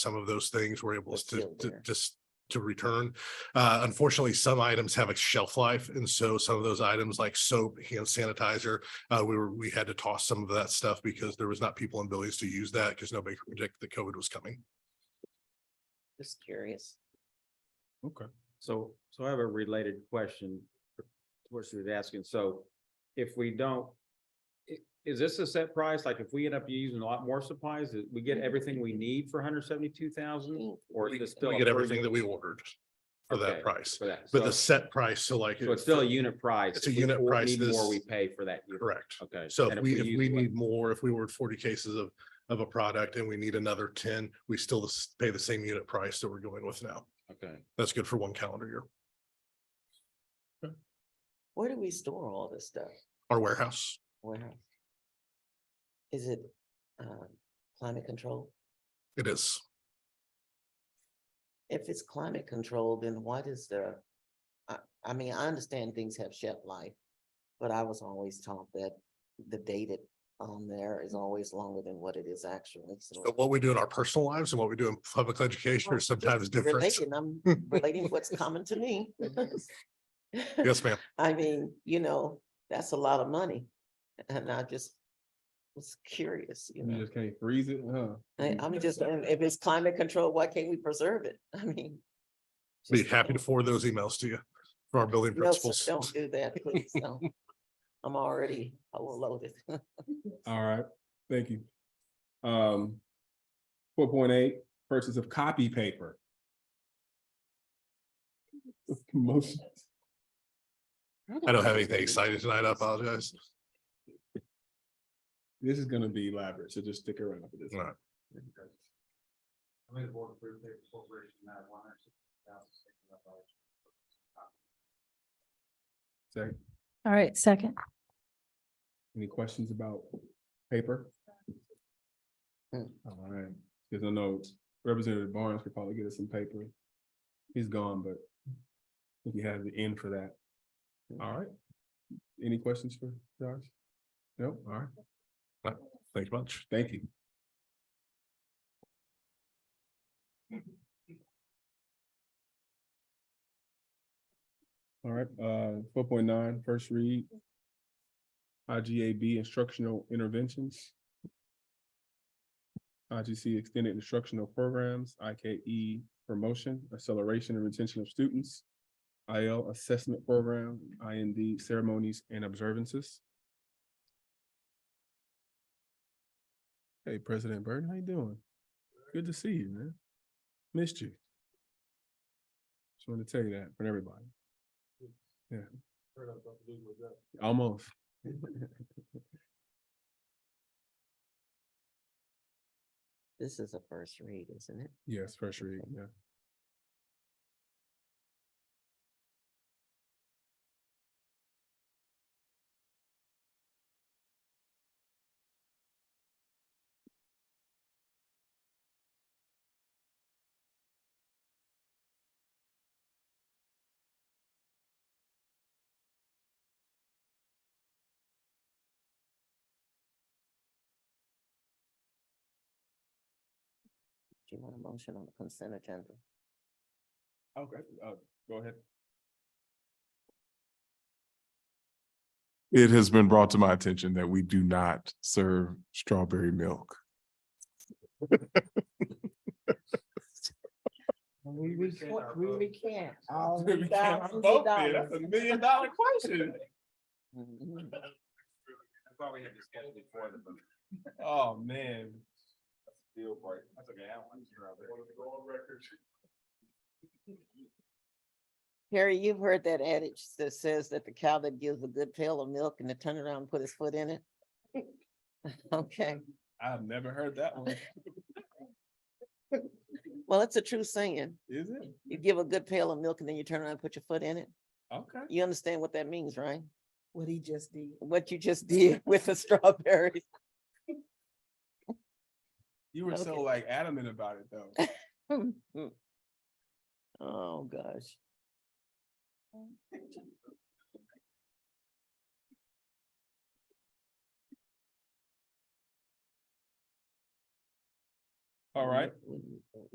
some of those things were able They're to, still to there. just to return. Uh, unfortunately, some items have a shelf life. And so some of those items like soap, hand sanitizer, uh, we were, we had to toss some of that stuff because there was not people in Billy's to use that because nobody could predict that COVID was coming. Just curious. Okay, so, so I have a related question. to What she was asking, so if we don't. i- Is this a set price? Like if we end up using a lot more supplies, that we get everything we need for hundred seventy-two thousand? Or We is this still? we a get per everything unit- that we ordered for Okay, that price, For that, but the so, set price, so like. so it's still a unit price. It's a If we unit or- price need this- More we pay for that. unit. Correct. Okay. So and if we, if use we less- need more, if we ordered forty cases of, of a product and we need another ten, we still s- pay the same unit price that we're going with now. Okay, That's good for one calendar year. Where do we store all this stuff? Our warehouse, Where? Is it um, climate control? it is. If it's climate control, then what is the? I, I mean, I understand things have shelf life, but I was always taught that the dated on there is always longer than what it is actually. So But what we do in our personal lives and what we do in public education Oh, are sometimes different. Relating, I'm relating what's common to me. Yes, ma'am. I mean, you know, that's a lot of money. And I just was curious, you You know, just can't freeze it, huh? I, I'm just, wondering, if it's climate control, why can't we preserve it? I mean. Be just- happy to forward those emails to you from our building No, sir, principals. Don't do that, please, no. I'm already overloaded. All right, thank you. Um, four point eight, purchase of copy paper. Motion. I don't have anything exciting tonight. I apologize. This is gonna be elaborate, so just stick around for this. All right. I made a board approved paper corporation that one hundred sixty thousand six hundred dollars. Second, All right, second. any questions about paper? Hmm. All right, because I know Representative Barnes could probably get us some paper. He's gone, but if you have the end for that. All right. Any questions for Josh? No, all right. Thank you much. Thank you. All right, uh, four point nine, first read. IGAB instructional interventions. IGC extended instructional programs, IKE promotion, acceleration and retention of students. IL assessment program, IND ceremonies and observances. Hey, President Burton, how you doing? Good to see you, man. Missed you. Just wanted to tell you that for everybody. Yeah. Almost. This is a first read, isn't it? Yes, first read, yeah. Do you want a motion on the consent agenda? Okay, uh, go ahead. It has been brought to my attention that we do not serve strawberry milk. We can't. That's a million dollar question. I thought we had discussed before the. Oh, man. Deal breaker. That's okay. I don't want to. Want to go on record? Harry, you've heard that adage that says that the cow that gives a good pail of milk and to turn around and put his foot in it? Okay, I've never heard that one. well, it's a true saying. Is it? You give a good pail of milk and then you turn around and put your foot in it. Okay. You understand what that means, right? what he just did. What you just did with the strawberries. You were so Okay. like adamant about it though. Oh, gosh. All right. Wouldn't- wouldn't-